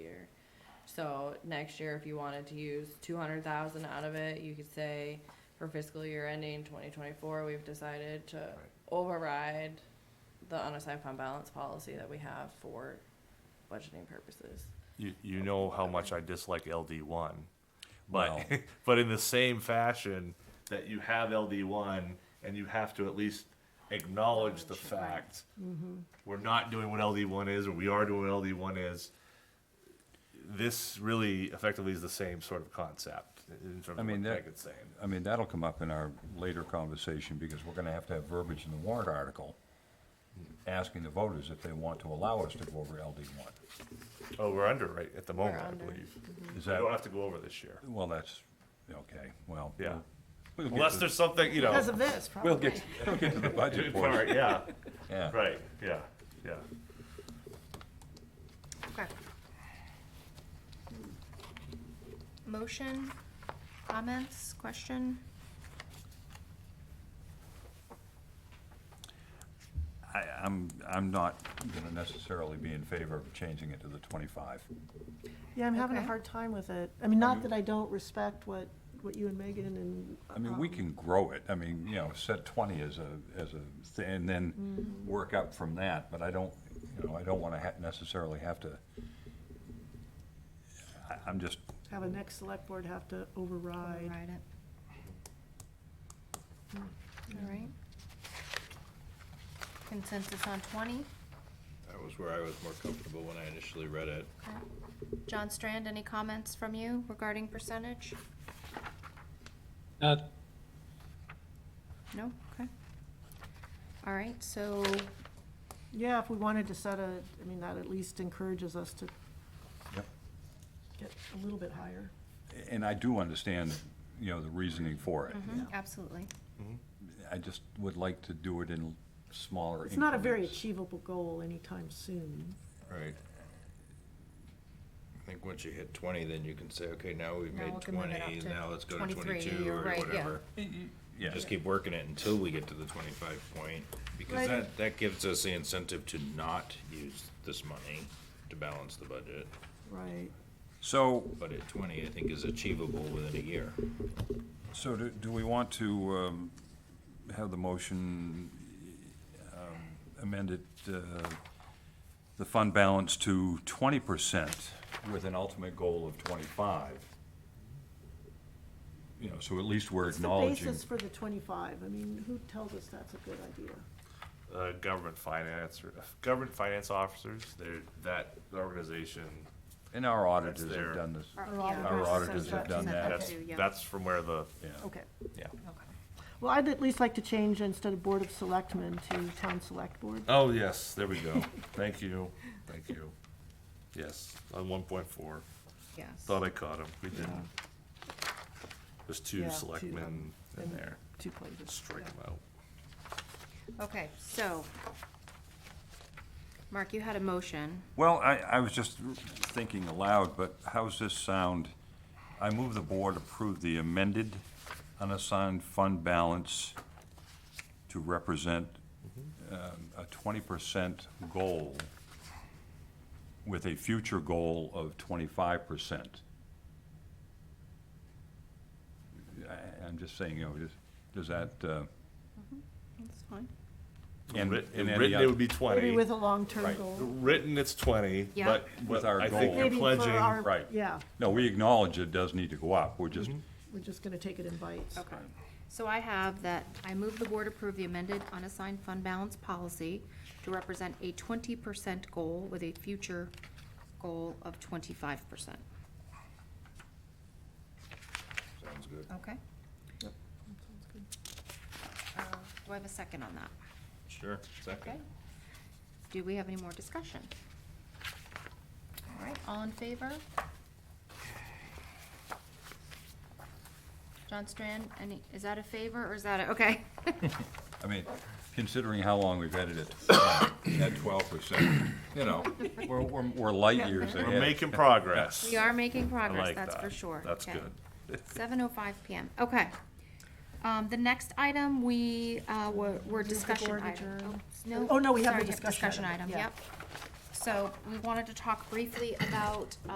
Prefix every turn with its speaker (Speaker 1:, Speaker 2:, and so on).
Speaker 1: So next year, if you wanted to use two hundred thousand out of it, you could say for fiscal year ending twenty twenty-four, we've decided to override the unassigned fund balance policy that we have for budgeting purposes.
Speaker 2: You, you know how much I dislike LD one, but, but in the same fashion that you have LD one and you have to at least acknowledge the fact we're not doing what LD one is, or we are doing what LD one is. This really effectively is the same sort of concept in terms
Speaker 3: I
Speaker 2: of what
Speaker 3: mean, that-
Speaker 2: Peg is saying.
Speaker 3: I mean, that'll come up in our later conversation, because we're gonna have to have verbiage in the warrant article asking the voters if they want to allow us to go over LD one.
Speaker 2: Oh, we're under right at the moment, I
Speaker 1: under.
Speaker 2: believe.
Speaker 3: Is
Speaker 2: We don't
Speaker 3: that,
Speaker 2: have to go over this year.
Speaker 3: well, that's, okay, well.
Speaker 2: Yeah.
Speaker 3: we'll- we'll
Speaker 2: Unless
Speaker 3: get to-
Speaker 2: there's something, you know.
Speaker 4: Because of this,
Speaker 3: We'll
Speaker 4: probably.
Speaker 3: get, we'll get to the budget
Speaker 2: Part,
Speaker 3: part,
Speaker 2: yeah,
Speaker 3: yeah.
Speaker 2: right, yeah, yeah.
Speaker 4: Okay. Motion, comments, question?
Speaker 3: I, I'm, I'm not gonna necessarily be in favor of changing it to the twenty-five.
Speaker 5: Yeah, I'm having a
Speaker 4: Okay.
Speaker 5: hard time with it. I mean, not that I don't respect what, what you and Megan and.
Speaker 3: I mean, we
Speaker 5: um,
Speaker 3: can grow it, I mean, you know, set twenty as a, as a, thing, and then
Speaker 5: Mm-hmm.
Speaker 3: work up from that, but I don't, you know, I don't wanna ha- necessarily have to. I, I'm just,
Speaker 5: Have a next select board have to override.
Speaker 4: Override it. All right. Consensus on twenty?
Speaker 6: That was where I was more comfortable when I initially read it.
Speaker 4: Okay. John Strand, any comments from you regarding percentage?
Speaker 7: Uh,
Speaker 4: No? Okay. All right, so,
Speaker 5: Yeah, if we wanted to set a, I mean, that at least encourages us to
Speaker 3: Yep.
Speaker 5: get a little bit higher.
Speaker 3: and I do understand, you know, the reasoning for it.
Speaker 4: mhm, absolutely.
Speaker 3: I just would like to do it in smaller
Speaker 5: Mm-hmm. It's not a very
Speaker 3: increments.
Speaker 5: achievable goal anytime soon.
Speaker 6: Right. I think once you hit twenty, then you can say, okay, now we've
Speaker 4: Now
Speaker 6: made
Speaker 4: we can move it up
Speaker 6: twenty,
Speaker 4: to
Speaker 6: now let's go to
Speaker 4: 23,
Speaker 6: twenty-two
Speaker 4: you're
Speaker 6: or
Speaker 4: right, yeah.
Speaker 6: whatever.
Speaker 3: Yeah.
Speaker 6: Just keep working it until we get to the twenty-five point, because
Speaker 5: Right.
Speaker 6: that, that gives us the incentive to not use this money to balance the budget.
Speaker 5: Right.
Speaker 3: So,
Speaker 6: But at twenty, I think is achievable within a year.
Speaker 3: so do, do we want to, um, have the motion um, amended, uh, the fund balance to twenty percent with an ultimate goal of twenty-five? You know, so at least we're
Speaker 5: It's the
Speaker 3: acknowledging,
Speaker 5: basis for the twenty-five. I mean, who tells us that's a good idea?
Speaker 2: uh, government finance, or- uh, government finance officers, they're, that organization,
Speaker 3: and our
Speaker 2: That's
Speaker 3: auditors
Speaker 2: there.
Speaker 3: have done this,
Speaker 5: Our auditors
Speaker 3: auditors
Speaker 5: have done
Speaker 3: that.
Speaker 2: that's, that's from where the,
Speaker 3: yeah.
Speaker 5: Okay.
Speaker 2: yeah.
Speaker 5: Well, I'd at least like to change instead of Board of Selectmen to Town Select Board.
Speaker 2: Oh, yes, there we go. Thank you, thank you. Yes, on one point four.
Speaker 4: Yes.
Speaker 2: Thought I caught him, we didn't. There's
Speaker 5: Yeah,
Speaker 2: two
Speaker 5: two,
Speaker 2: selectmen
Speaker 5: um,
Speaker 2: in
Speaker 5: and-
Speaker 2: there,
Speaker 5: Two places.
Speaker 2: strike them out.
Speaker 4: Okay, so, Mark, you had a motion.
Speaker 3: Well, I, I was just thinking aloud, but how's this sound? I move the board approve the amended unassigned fund balance to represent um, a twenty percent goal with a future goal of twenty-five percent. I, I'm just saying, you know, just, does that, uh?
Speaker 4: That's fine.
Speaker 3: and-
Speaker 2: Writ-
Speaker 3: and any
Speaker 2: Written, it
Speaker 3: other-
Speaker 2: would be
Speaker 5: Maybe
Speaker 2: twenty,
Speaker 5: with a long-term
Speaker 3: Right.
Speaker 5: goal.
Speaker 2: written, it's twenty,
Speaker 4: Yeah.
Speaker 2: but,
Speaker 3: With
Speaker 2: but
Speaker 3: our
Speaker 2: I think
Speaker 3: goal.
Speaker 2: you're
Speaker 5: Maybe for our-
Speaker 2: pledging,
Speaker 3: Right.
Speaker 5: Yeah,
Speaker 3: No, we acknowledge it does need to go up, we're
Speaker 2: Mm-hmm.
Speaker 3: just,
Speaker 5: we're just gonna take it in bites.
Speaker 4: Okay. So I have that I move the board approve the amended unassigned fund balance policy to represent a twenty percent goal with a future goal of twenty-five percent.
Speaker 6: Sounds good.
Speaker 4: Okay. Uh, Do I have a second on that?
Speaker 6: Sure,
Speaker 4: Okay.
Speaker 6: second.
Speaker 4: Do we have any more discussion? All right, all in favor? John Strand, any, is that a favor or is that a, okay?
Speaker 3: I mean, considering how long we've edited at twelve percent, you know, we're, we're, we're light years ahead.
Speaker 2: we're making progress.
Speaker 4: We are making
Speaker 2: I
Speaker 4: progress,
Speaker 2: like
Speaker 4: that's for
Speaker 2: that.
Speaker 4: sure.
Speaker 2: That's
Speaker 4: Okay.
Speaker 2: good.
Speaker 4: Seven oh five PM, okay. Um, the next item, we, uh, were, were discussion
Speaker 5: board
Speaker 4: item.
Speaker 5: adjourn.
Speaker 4: Oops, No.
Speaker 5: Oh, no, we have the
Speaker 4: sorry,
Speaker 5: discussion
Speaker 4: Discussion
Speaker 5: item,
Speaker 4: item,
Speaker 5: yeah.
Speaker 4: yep. So we wanted to talk briefly about,